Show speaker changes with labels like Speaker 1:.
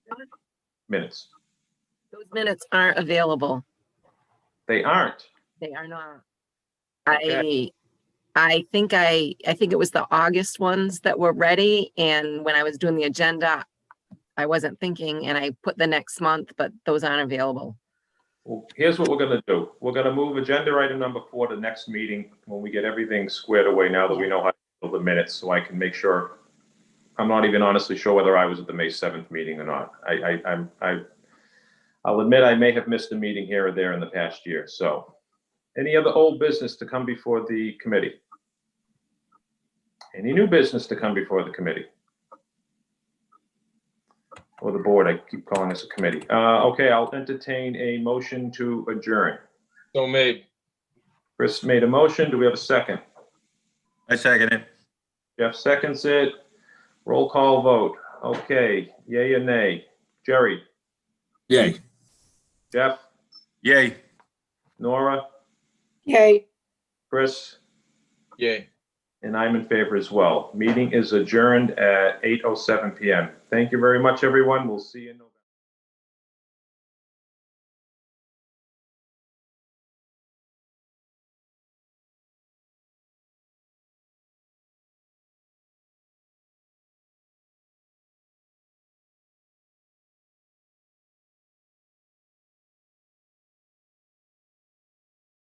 Speaker 1: minutes.
Speaker 2: Those minutes aren't available.
Speaker 1: They aren't.
Speaker 2: They are not. I,
Speaker 1: Okay.
Speaker 2: I think I, I think it was the August ones that were ready and when I was doing the agenda, I wasn't thinking and I put the next month, but those aren't available.
Speaker 1: Well, here's what we're gonna do. We're gonna move agenda item number four to next meeting when we get everything squared away now that we know how to handle the minutes, so I can make sure. I'm not even honestly sure whether I was at the May seventh meeting or not. I, I, I'm, I, I'll admit I may have missed a meeting here or there in the past year, so. Any other old business to come before the committee? Any new business to come before the committee? or the board, I keep calling this a committee. Uh, okay, I'll entertain a motion to adjourn.
Speaker 3: So made.
Speaker 1: Chris made a motion. Do we have a second?
Speaker 4: I second it.
Speaker 1: Jeff seconds it. Roll call vote. Okay, yay or nay? Jerry,
Speaker 4: Yay.
Speaker 1: Jeff,
Speaker 4: Yay.
Speaker 1: Nora,
Speaker 5: Yay.
Speaker 1: Chris,
Speaker 3: Yay.
Speaker 1: and I'm in favor as oh well. Meeting is adjourned at 8:07 PM. Thank you very much, everyone. We'll see you. in-